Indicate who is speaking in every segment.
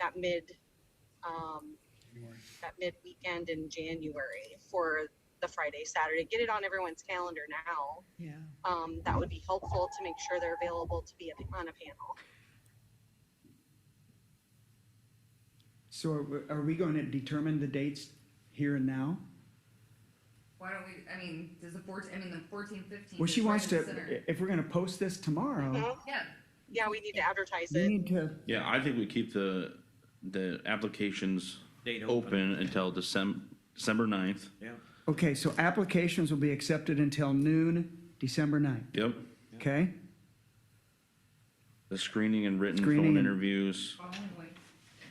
Speaker 1: that mid, um, that mid weekend in January for the Friday, Saturday. Get it on everyone's calendar now.
Speaker 2: Yeah.
Speaker 1: Um, that would be helpful to make sure they're available to be at- on a panel.
Speaker 2: So are we- are we going to determine the dates here and now?
Speaker 3: Why don't we, I mean, does the fourteen, I mean, the fourteen, fifteen.
Speaker 2: Well, she
Speaker 3: is right
Speaker 2: wants
Speaker 3: in the center.
Speaker 2: to, if we're going to post this tomorrow,
Speaker 1: Mhm.
Speaker 3: Yeah,
Speaker 1: Yeah, we need to advertise
Speaker 2: we
Speaker 1: it.
Speaker 2: Uh-huh. need to,
Speaker 4: Yeah, I think we keep the, the applications
Speaker 5: Date
Speaker 4: open until December, December ninth.
Speaker 5: Yeah.
Speaker 2: okay, so applications will be accepted until noon, December 9th,
Speaker 4: Yep.
Speaker 2: okay?
Speaker 4: The screening and written
Speaker 2: Screening
Speaker 4: phone
Speaker 2: and-
Speaker 4: interviews.
Speaker 3: following week.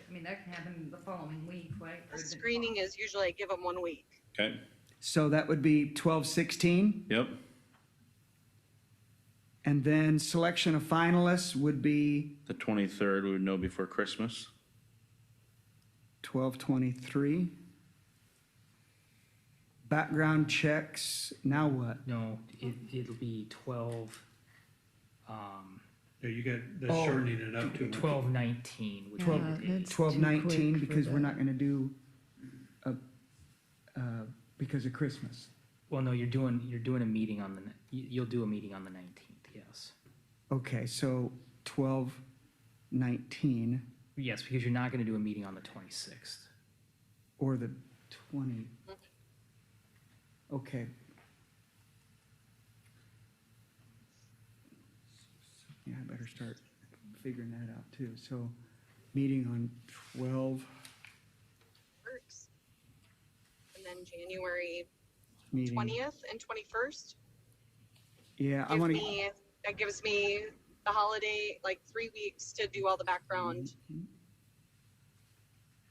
Speaker 3: I mean, that can happen the following week, right? Or
Speaker 1: The
Speaker 3: the-
Speaker 1: Screening is usually I give them one week.
Speaker 4: Okay.
Speaker 2: So that would be 1216,
Speaker 4: Yep.
Speaker 2: and then selection of finalists would be
Speaker 4: The twenty-third, we would know before Christmas.
Speaker 2: 1223. Background checks, now what?
Speaker 6: No, it, it'll be twelve, um,
Speaker 7: Yeah, you got,
Speaker 2: Oh,
Speaker 7: that's shortening it up too much.
Speaker 6: twelve nineteen, which
Speaker 2: Twelve-
Speaker 6: would be-
Speaker 2: 1219, because we're not going to do, uh, uh, because of Christmas.
Speaker 6: well, no, you're doing, you're doing a meeting on the, ni- you, you'll do a meeting on the nineteenth, yes.
Speaker 2: Okay, so 1219
Speaker 6: Yes, because you're not gonna do a meeting on the twenty-sixth.
Speaker 2: or the 20. Okay. Yeah, I better start figuring that out too. So meeting on 12,
Speaker 1: Works. And then January
Speaker 2: meeting.
Speaker 1: twentieth and twenty-first.
Speaker 2: Yeah, I
Speaker 1: Give
Speaker 2: want to,
Speaker 1: me, that gives me the holiday, like three weeks to do all the background.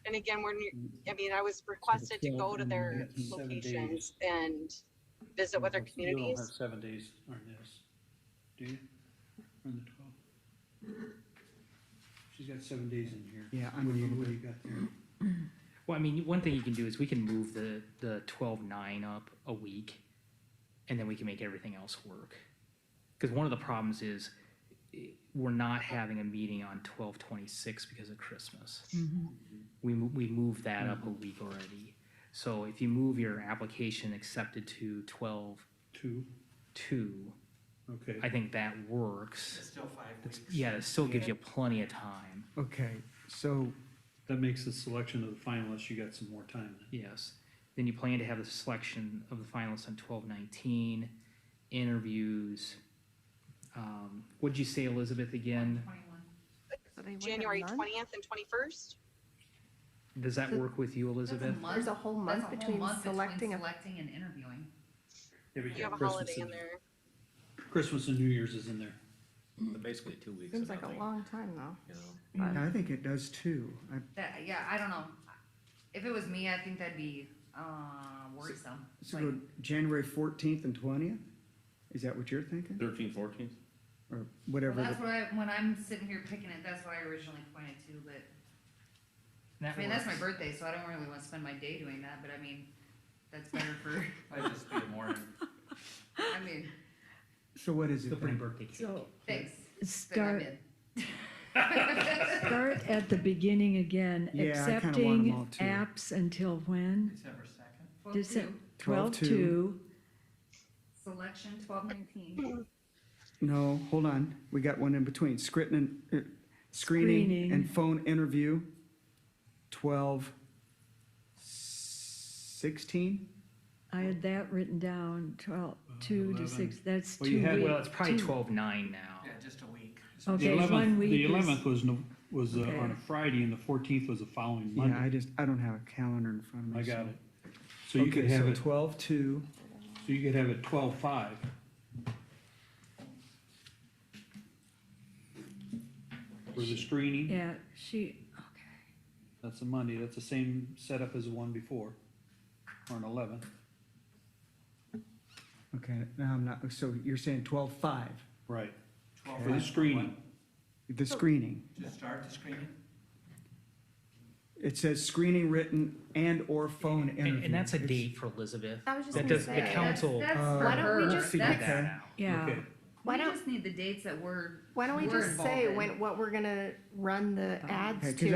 Speaker 1: And again, we're, ne- I mean, I was requested to go to their
Speaker 7: That's seven
Speaker 1: locations and visit with their
Speaker 7: You don't have
Speaker 1: communities.
Speaker 7: seven days on this, do you? On the twelfth? She's got seven days in here.
Speaker 2: Yeah, I'm a
Speaker 7: What do you-
Speaker 2: little
Speaker 7: What do you got there?
Speaker 6: Well, I mean, one thing you can do is we can move the, the twelve-nine up a week, and then we can make everything else work. Because one of the problems is, eh, we're not having a meeting on twelve-twenty-six because of Christmas. We, mo- we moved that up a week already. So if you move your application accepted to twelve-two,
Speaker 7: Two, okay.
Speaker 6: I think that works. Still five weeks. Yeah, it still gives you plenty of time,
Speaker 2: okay, so
Speaker 7: That makes the selection of the finalists, you got some more time then.
Speaker 6: yes. Then you plan to have the selection of the finalists on twelve nineteen, interviews. Um, what'd you say, Elizabeth, again?
Speaker 3: Twenty-one.
Speaker 1: January twentieth and twenty-first.
Speaker 6: Does that work with you,
Speaker 3: That's a
Speaker 6: Elizabeth?
Speaker 3: month.
Speaker 8: There's a whole
Speaker 3: That's a
Speaker 8: month
Speaker 3: whole
Speaker 8: between
Speaker 3: month between
Speaker 8: selecting a
Speaker 3: Selecting and interviewing.
Speaker 7: Yeah, we
Speaker 1: You
Speaker 7: got
Speaker 1: have a
Speaker 7: Christmas
Speaker 1: holiday in there.
Speaker 7: Christmas and New Year's is in there.
Speaker 5: Basically two weeks.
Speaker 8: Seems
Speaker 5: of
Speaker 8: like a
Speaker 5: nothing,
Speaker 8: long time though.
Speaker 5: you know.
Speaker 2: I think it does too. I-
Speaker 3: That, yeah, I don't know. If it was me, I think that'd be, uh, worrisome.
Speaker 2: So
Speaker 3: Like,
Speaker 2: go January 14th and 20th? Is that what you're thinking?
Speaker 4: Thirteenth, fourteenth?
Speaker 2: Or
Speaker 3: well,
Speaker 2: whatever?
Speaker 3: That's
Speaker 2: the-
Speaker 3: what I, when I'm sitting here picking it, that's what I originally pointed to, but I mean, that's my birthday, so I don't really want to spend my day doing that, but I mean, that's better for,
Speaker 9: Might just be a morning.
Speaker 3: I mean,
Speaker 2: So what is
Speaker 6: Still
Speaker 2: it
Speaker 6: pretty
Speaker 2: then?
Speaker 6: birthday cake.
Speaker 10: So
Speaker 3: thanks. but I'm
Speaker 10: start,
Speaker 3: in.
Speaker 10: start at the beginning again,
Speaker 2: Yeah, I kinda want 'em all
Speaker 10: accepting
Speaker 2: too.
Speaker 10: apps until when?
Speaker 9: December second.
Speaker 3: Well,
Speaker 10: Does it-
Speaker 3: two.
Speaker 2: 12-2.
Speaker 10: 12-2.
Speaker 3: Selection twelve nineteen.
Speaker 2: No, hold on. We got one in between. Screening, uh, screening and
Speaker 10: Screening.
Speaker 2: phone interview, twelve sixteen?
Speaker 10: I had that written down, twelve, two to six, that's
Speaker 7: Well, you
Speaker 10: two
Speaker 7: had-
Speaker 10: weeks.
Speaker 6: Well, it's probably
Speaker 10: two-
Speaker 6: twelve-nine now.
Speaker 9: Yeah, just a week.
Speaker 7: The
Speaker 10: Okay,
Speaker 7: 11th
Speaker 10: one week
Speaker 7: The
Speaker 10: is-
Speaker 7: eleventh was, no- was uh,
Speaker 10: Okay.
Speaker 7: on a Friday and the fourteenth was the following
Speaker 2: Yeah, I
Speaker 7: Monday.
Speaker 2: just, I don't have a calendar in front of me.
Speaker 7: I got
Speaker 2: so-
Speaker 7: it. So you
Speaker 2: Okay,
Speaker 7: could have
Speaker 2: so
Speaker 7: it, so
Speaker 2: Twelve two,
Speaker 7: you could have it twelve-five. For the screening.
Speaker 10: Yeah, she,
Speaker 7: That's a Monday, that's the same setup as the one before, or an eleven.
Speaker 2: okay, now I'm not, so you're saying twelve five,
Speaker 7: Right.
Speaker 9: Twelve
Speaker 7: For the
Speaker 9: five,
Speaker 7: screening,
Speaker 2: the screening.
Speaker 9: To start the screening?
Speaker 2: It says screening written and/or phone interview.
Speaker 6: And, and that's a
Speaker 2: It's-
Speaker 6: date for Elizabeth.
Speaker 8: I was just
Speaker 6: That
Speaker 8: gonna
Speaker 6: does, the
Speaker 8: say,
Speaker 6: council,
Speaker 3: That's, that's
Speaker 2: Why
Speaker 3: for
Speaker 8: don't we
Speaker 6: will
Speaker 3: her.
Speaker 8: just-
Speaker 6: figure
Speaker 3: That's-
Speaker 6: that out.
Speaker 10: yeah,
Speaker 7: okay,
Speaker 8: Why
Speaker 3: We
Speaker 8: don't-
Speaker 3: just need the dates that we're.
Speaker 8: Why don't we
Speaker 3: we're
Speaker 8: just
Speaker 3: involved
Speaker 8: say
Speaker 3: in.
Speaker 8: when, what we're gonna run the
Speaker 10: Uh,
Speaker 2: Okay,
Speaker 8: ads
Speaker 2: 'cause
Speaker 8: to?